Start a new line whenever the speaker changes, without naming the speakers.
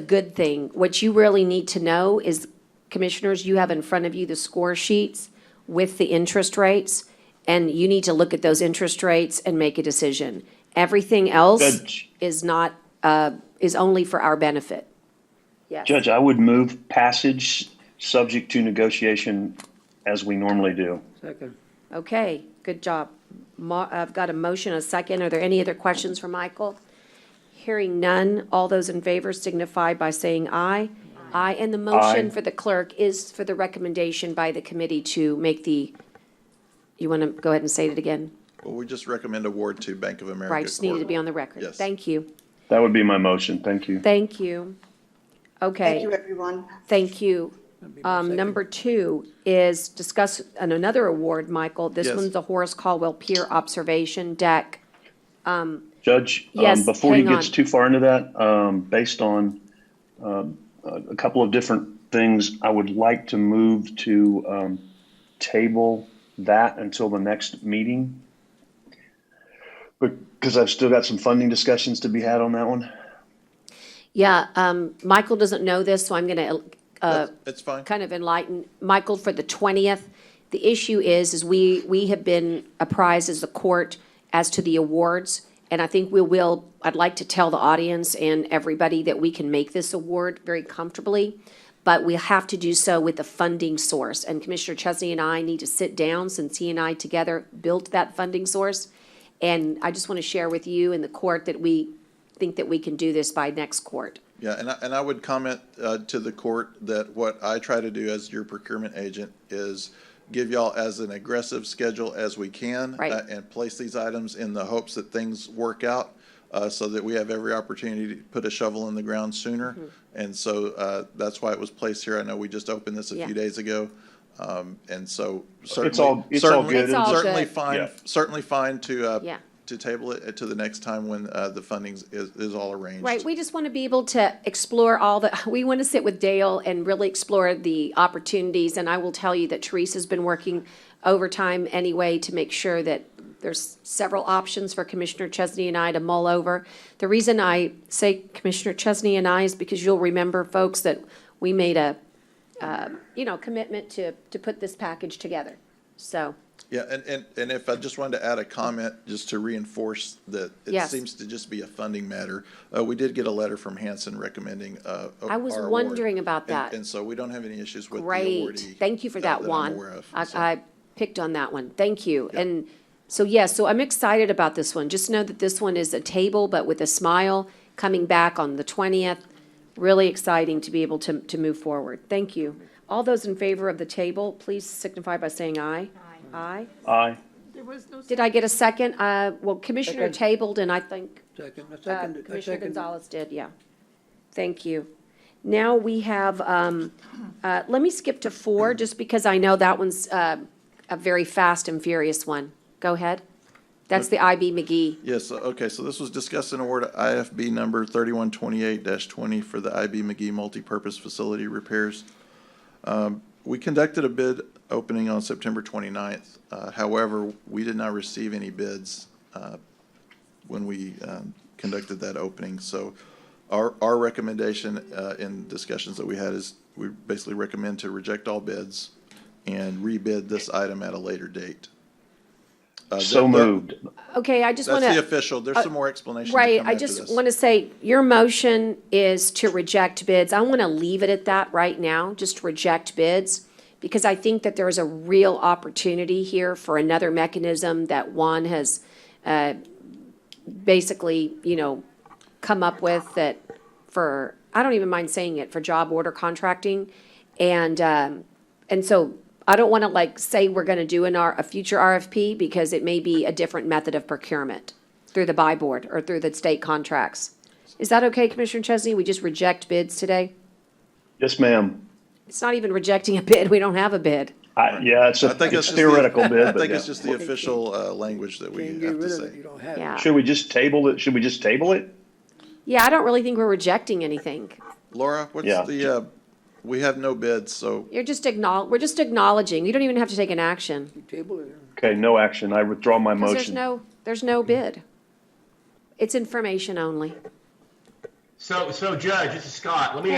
good thing. What you really need to know is, commissioners, you have in front of you the score sheets with the interest rates, and you need to look at those interest rates and make a decision. Everything else
Judge.
is not, uh, is only for our benefit. Yes.
Judge, I would move passage subject to negotiation as we normally do.
Second.
Okay, good job. Ma, I've got a motion, a second. Are there any other questions for Michael? Hearing none, all those in favor signify by saying aye. Aye, and the motion
Aye.
for the clerk is for the recommendation by the committee to make the, you want to go ahead and say it again?
Well, we just recommend award to Bank of America.
Right, just needed to
Corp.
be on the record.
Yes.
Thank you,
That would be my motion. Thank you.
thank you.
Thank
Okay,
you, everyone.
thank you.
be my
Um,
second.
number two is discuss an- another award, Michael. This
Yes.
one's the Horace Caldwell Pier Observation Deck.
Judge,
Yes,
um, before he
hang
gets
on.
too far into that, um, based on, um, a, a couple of different things, I would like to move to, um, table that until the next meeting. Because I've still got some funding discussions to be had on that one.
Yeah, um, Michael doesn't know this, so I'm gonna, uh,
That's- It's fine.
kind of enlighten Michael for the twentieth. The issue is, is we, we have been apprised as the court as to the awards, and I think we will, I'd like to tell the audience and everybody that we can make this award very comfortably, but we have to do so with a funding source, and Commissioner Chesney and I need to sit down, since he and I together built that funding source. And I just want to share with you and the court that we think that we can do this by next court.
Yeah, and I, and I would comment uh, to the court that what I try to do as your procurement agent is give y'all as an aggressive schedule as we can.
Right.
uh, And place these items in the hopes that things work out uh, so that we have every opportunity to put a shovel in the ground sooner.
Mm-hmm.
And so uh, that's why it was placed here. I know we just opened this a
Yeah.
few days ago. Um, And so certainly.
all- it's all
certainly-
good. It's
all
Certainly
good.
fine,
Yeah.
certainly fine to, uh,
Yeah.
to table it to the next time when uh, the funding is, is all arranged.
Right, we just want to be able to explore all the, we want to sit with Dale and really explore the opportunities. And I will tell you that Teresa's been working overtime anyway to make sure that there's several options for Commissioner Chesney and I to mull over. The reason I say Commissioner Chesney and I is because you'll remember, folks, that we made a, uh, you know, commitment to, to put this package together. So,
Yeah, and, and, and if I just wanted to add a comment, just to reinforce that it
Yes.
seems to just be a funding matter. Uh, we did get a letter from Hanson recommending, uh.
I was
our award.
wondering about
And-
that.
And so we don't have any issues with the
Great,
awardee.
thank you for
uh,
that
I'm aware
one.
of.
I,
So-
I picked on that one, thank you. And so, yes, so I'm excited about this one. Just know that this one is a table, but with a smile, coming back on the twentieth. Really exciting to be able to, to move forward, thank you. All those in favor of the table, please signify by saying aye. Aye. Aye.
Aye.
There was no
Did I get a second? Uh, well, Commissioner
Second.
tabled, and I think
second. I
uh,
seconded- I
Commissioner
seconded.
Gonzalez did, yeah. Thank you. Now we have, um, uh, let me skip to four, just because I know that one's, uh, a very fast and furious one. Go ahead. That's the IB McGee.
Yes, okay, so this was discussed and awarded IFB number thirty-one twenty-eight twenty for the IB McGee multipurpose facility repairs. Um, We conducted a bid opening on September 29th. Uh, However, we did not receive any bids uh, when we um, conducted that opening. So our, our recommendation uh, in discussions that we had is we basically recommend to reject all bids and rebid this item at a later date. Uh,
So
that- that-
moved.
Okay, I just want to.
that's the official, there's some more explanation to come
Right, I
after
just
this.
want to say, your motion is to reject bids. I want to leave it at that right now, just reject bids, because I think that there is a real opportunity here for another mechanism that Juan has uh, basically, you know, come up with that for, I don't even mind saying it, for job order contracting. And, um, and so I don't want to like say we're going to do an R, a future RFP because it may be a different method of procurement through the buy board or through the state contracts. Is that okay, Commissioner Chesney? We just reject bids today?
Yes, ma'am.
It's not even rejecting a bid. We don't have a bid.
I, yeah, it's
I
a it's
think it's just the-
theoretical
I
bid, but
think
yeah.
it's just the official, uh, language that we
Can't
have
get
to
rid of it.
say.
You don't have it.
Yeah.
Should we just table it? Should we just table it?
Yeah, I don't really think we're rejecting anything.
Laura, what's
Yeah.
the, uh, we have no bids, so
You're just acknowledge, we're just acknowledging. You don't even have to take an action.
Table it.
Okay, no action. I withdraw my
Because there's
motion.
no, there's no bid. It's information only.
So, so Judge, this is Scott. Let me